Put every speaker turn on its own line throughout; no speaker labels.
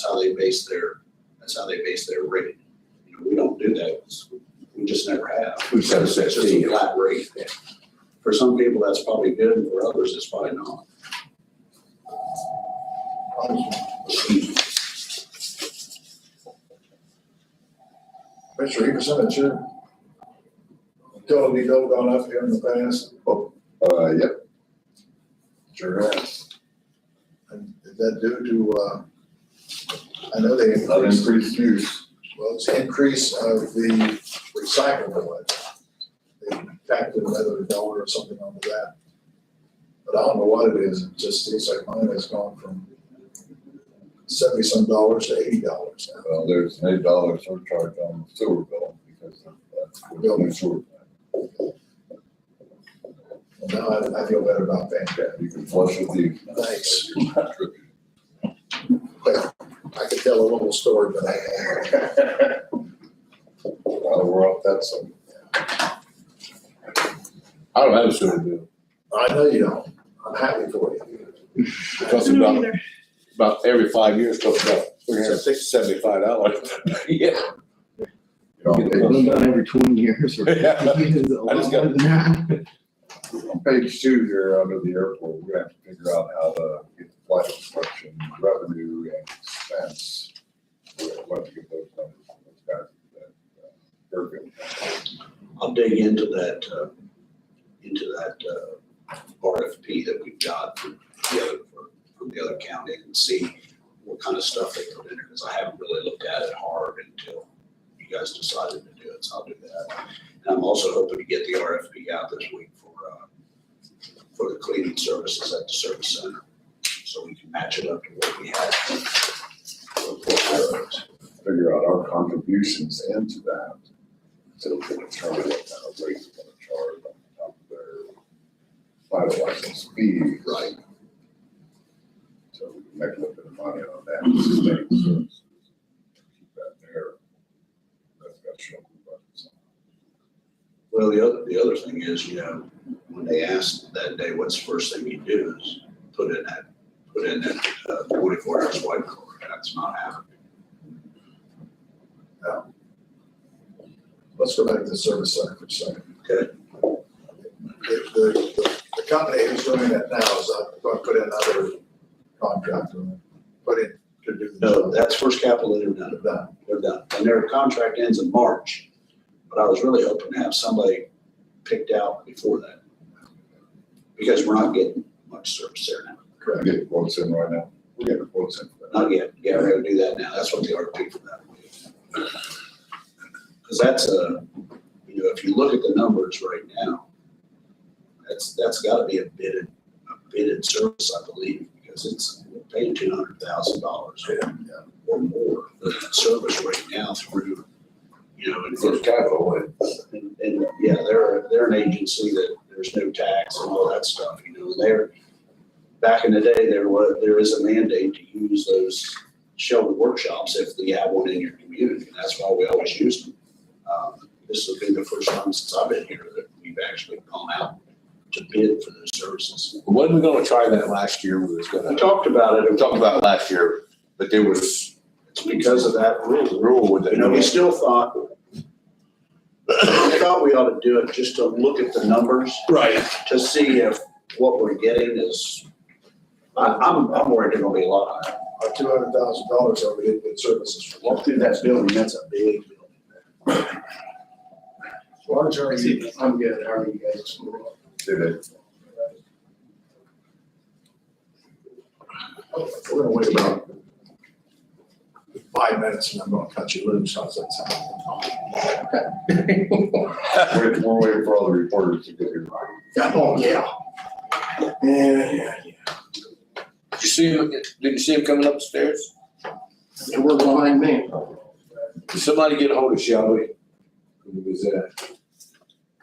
That's how they base their, that's how they base their rate. You know, we don't do that, It's- we just never have.
We've got a set
It's just a
fee.
flat rate. For some people, that's probably good, and for others, it's probably not.
Mr. Hickerson, it's your utility bill gone up here in the past,
Uh, yep,
sure has. And is that due to, uh, I know they
an
increased,
increased use.
well, it's the increase of the recyclable. They tacked another dollar or something onto that. But I don't know what it is, it just seems like mine has gone from seventy-some dollars to eighty dollars now.
Well, uh, there's an eight dollar surcharge on the sewer bill because of uh, the building sewer.
And Now I, I feel better about that.
Yeah, you can flush with the.
Thanks. Well, I could tell a little story, but I.
Well, we're off that some. I don't have a sewer bill.
I know you don't. I'm happy for you.
It costs about, about every five years, it costs about three hundred and sixty, seventy-five dollars. Yeah.
Well, About every twenty years or.
Yeah.
It's a
I just got-
lot more than that.
On page two here, under the airport, we're gonna have to figure out how to get the flight instruction revenue and expense. We're gonna have to get those numbers from those guys that, uh, they're good.
I'll dig into that, uh, into that, uh, RFP that we got from the other, from the other county and see what kind of stuff they put in there, because I haven't really looked at it hard until you guys decided to do it, so I'll do that. And I'm also hoping to get the RFP out this week for, uh, for the cleaning services at the service center, so we can match it up to what we had. for- for ours.
Figure out our contributions into that. So we can determine what kind of rates we're gonna charge on top of their pilot license fee.
Right.
So we can make a little bit of money on that. Keep that there. That's got show.
Well, the other, the other thing is, you know, when they asked that day, what's the first thing you do is put in that, put in that uh, forty-four hours white collar. That's not happening.
Let's go back to the service center for a second.
Okay.
The, the, the company who's doing that now is, I put in another contract, put in to do the
No,
job.
that's first capital that are done.
They're done.
They're done. And their contract ends in March. But I was really hoping to have somebody picked out before that. Because we're not getting much service there now.
I get quotes in right now. We're getting quotes in for that.
Not yet. Yeah, we're gonna do that now. That's what the RFP for that will be. Because that's a, you know, if you look at the numbers right now, that's, that's gotta be a bidded, a bidded service, I believe, because it's we're paying two hundred thousand dollars or more for that service right now through, you know, and
First capital, and
and, and, yeah, they're, they're an agency that there's no tax and all that stuff, you know, they're, back in the day, there was, there is a mandate to use those shelter workshops if you have one in your community, and that's why we always use them. Um, This will be the first time since I've been here that we've actually gone out to bid for those services.
Wasn't we gonna try that last year? We was
I
gonna,
talked about it,
we talked about it last year, but there was
it's because of that rule,
a rule with
You know, we
it.
still thought, we thought we ought to do it just to look at the numbers.
Right.
to see if what we're getting is, I, I'm, I'm worried they're gonna be a lot higher.
Our two hundred thousand dollars over in good services for.
Walk through that building, that's a big building.
Large E area.
I'm good, how are you guys?
did it.
We're gonna wait about five minutes and I'm gonna cut you loose, how's that sound?
We're, we're waiting for all the reporters to get here.
Oh, yeah. Yeah, yeah, yeah.
Did you see him, did you see him coming upstairs?
They were behind me.
Did somebody get ahold of Shelby? Who was that?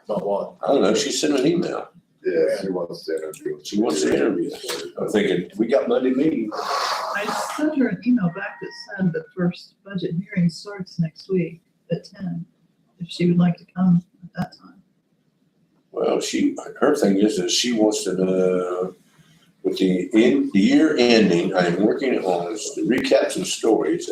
About what?
I don't know, she sent an email.
Yeah, she wants to interview.
She wants an interview. I'm thinking, we got Monday meeting.
I sent her an email back that said the first budget hearing starts next week at ten, if she would like to come at that time.
Well, she, her thing is, is she wants to, uh, with the, in, the year ending, I am working on is to recap some stories